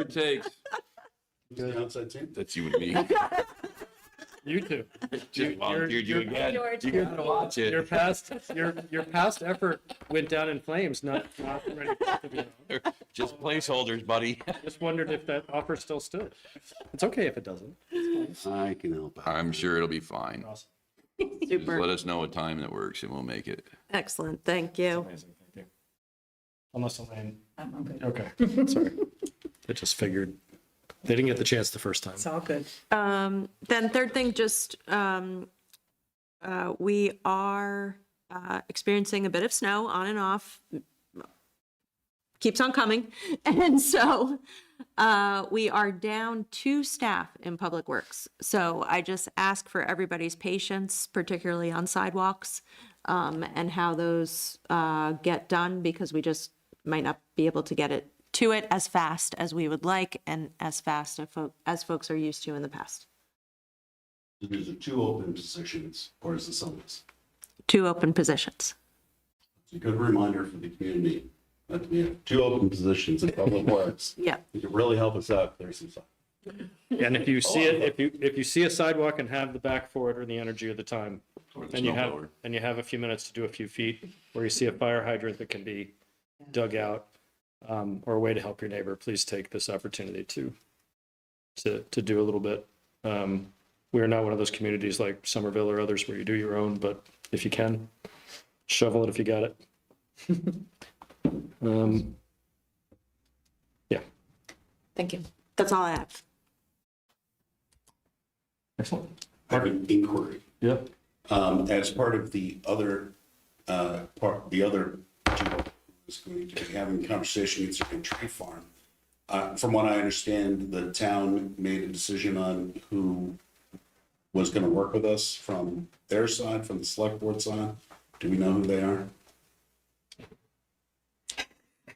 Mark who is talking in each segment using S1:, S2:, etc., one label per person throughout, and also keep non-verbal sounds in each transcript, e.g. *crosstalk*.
S1: it takes.
S2: An outside team?
S1: That's you
S3: *laughs*
S1: and me.
S3: You too.
S1: Just volunteered you
S3: you're-
S1: again.
S4: George.
S1: You gotta watch
S3: Your
S1: it.
S3: past, your your past effort went down in flames. Not, not ready to be.
S1: *laughs* Just placeholders, buddy.
S3: Just wondered if that offer still stood. It's okay if it doesn't.
S2: I can help out.
S1: I'm sure it'll be
S3: *laughs*
S1: fine.
S3: Awesome.
S1: Just let
S5: Super.
S1: us know a time that works and we'll make it.
S5: Excellent. Thank you.
S3: Amazing. Thank you. Unless Elaine.
S4: I'm I'm good.
S3: Okay.
S4: *laughs*
S3: Sorry. I just figured they didn't get the chance the first time.
S4: It's all good.
S5: Um, then third thing, just, um, uh, we are, uh, experiencing a bit of snow on and off. Keeps on coming. *laughs* And so, uh, we are down two staff in Public Works. So I just ask for everybody's patience, particularly on sidewalks, um, and how those, uh, get done because we just might not be able to get it to it as fast as we would like and as fast as, fo- as folks are used to in the past.
S2: There's two open positions, or is it someone's?
S5: Two open positions.
S2: It's a good reminder for the community that we have two open positions in public *laughs* works.
S5: Yeah.
S2: It could really help us out if there's some stuff.
S3: And if you see it, if you if you see a sidewalk and have the back forward or the energy of the time, and you have
S1: snowblower.
S3: and you have a few minutes to do a few feet, or you see a fire hydrant that can be dug out, um, or a way to help your neighbor, please take this opportunity to to to do a little bit. Um, we are not one of those communities like Somerville or others where you do your own, but if you can, shovel it if you got it.
S5: *laughs*
S3: um, yeah.
S5: Thank you. That's all I have.
S3: Excellent.
S2: I have an inquiry.
S3: Yeah.
S2: Um, as part of the other, uh, part, the other people who's going to be having a conversation concerning tree farm. Uh, from what I understand, the town made a decision on who was gonna work with us from their side, from the select board side. Do we know who they are?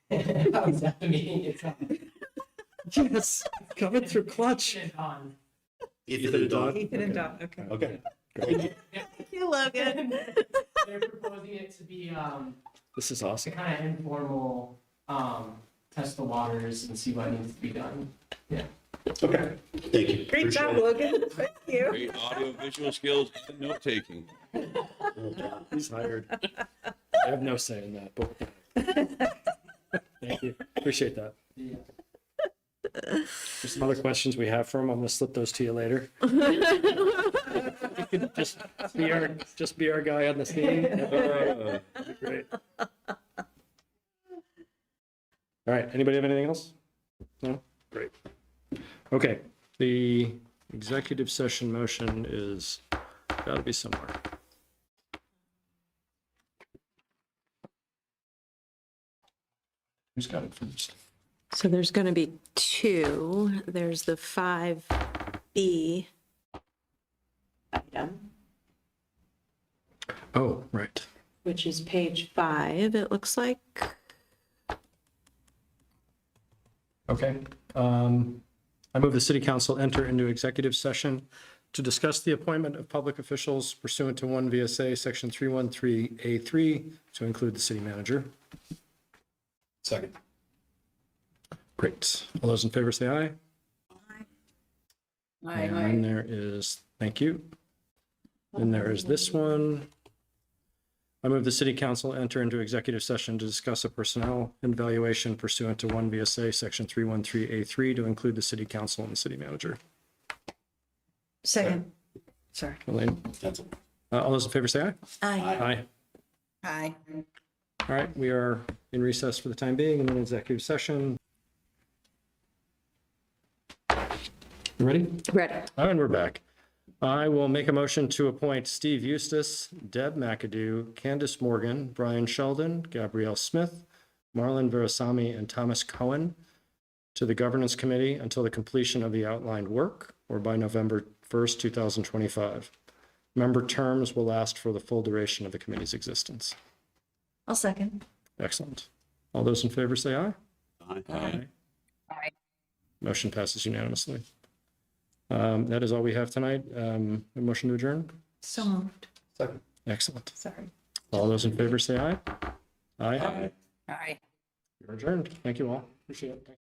S6: That was at the meeting itself.
S3: Yes, coming through clutch.
S6: It's on.
S2: Ethan and Don.
S4: Ethan and Don, okay.
S2: Okay.
S5: Thank you, Logan.
S4: *laughs*
S6: They're proposing it to be, um,
S3: This is
S6: to
S3: awesome.
S6: kind of informal, um, test the waters and see what needs to be done.
S2: Okay, thank you.
S4: Great job,
S2: Appreciate
S4: Logan. Thank you.
S1: Great audio visual skills and note taking.
S2: it. Don.
S3: He's hired. I have no say in that, but thank you. Appreciate that.
S6: Yeah.
S3: There's some other questions we have for him. I'm gonna slip those to you later. You can just be our, just be our guy on the scene. Great. All right, anybody have anything else? No? Great. Okay, the executive session motion is, gotta be somewhere. Who's got it first?
S5: So there's going to be two. There's the 5B item,
S3: Oh, right.
S5: which is page five, it looks like.
S3: Okay. Um, I move the city council enter into executive session to discuss the appointment of public officials pursuant to one VSA, section 313A3, to include the city manager.
S2: Second.
S3: Great. All those in favor say aye. And there is, thank you. And there is this one. I move the city council enter into executive session to discuss a personnel evaluation pursuant to one VSA, section 313A3, to include the city council and the city manager.
S4: Second. Sorry.
S3: Elaine,
S2: That's all.
S3: uh, all those in favor say aye.
S5: Aye.
S3: Aye.
S4: Hi.
S3: All right, we are in recess for the time being and in executive session. You Ready?
S5: Ready.
S3: Oh, And we're back. I will make a motion to appoint Steve Eustace, Deb McAdoo, Candace Morgan, Brian Sheldon, Gabrielle Smith, Marlon Verasami, and Thomas Cohen to the Governance Committee until the completion of the outlined work or by November 1st, 2025. Member terms will last for the full duration of the committee's existence.
S4: I'll second.
S3: Excellent. All those in favor say aye.
S1: Aye.
S3: Motion passes unanimously. Um, That is all we have tonight. Um, A motion to adjourn?
S4: So moved.
S3: Excellent.
S4: Sorry.
S3: All those in favor say aye. Aye.
S4: Aye.
S3: You're adjourned. Thank you all. Appreciate it.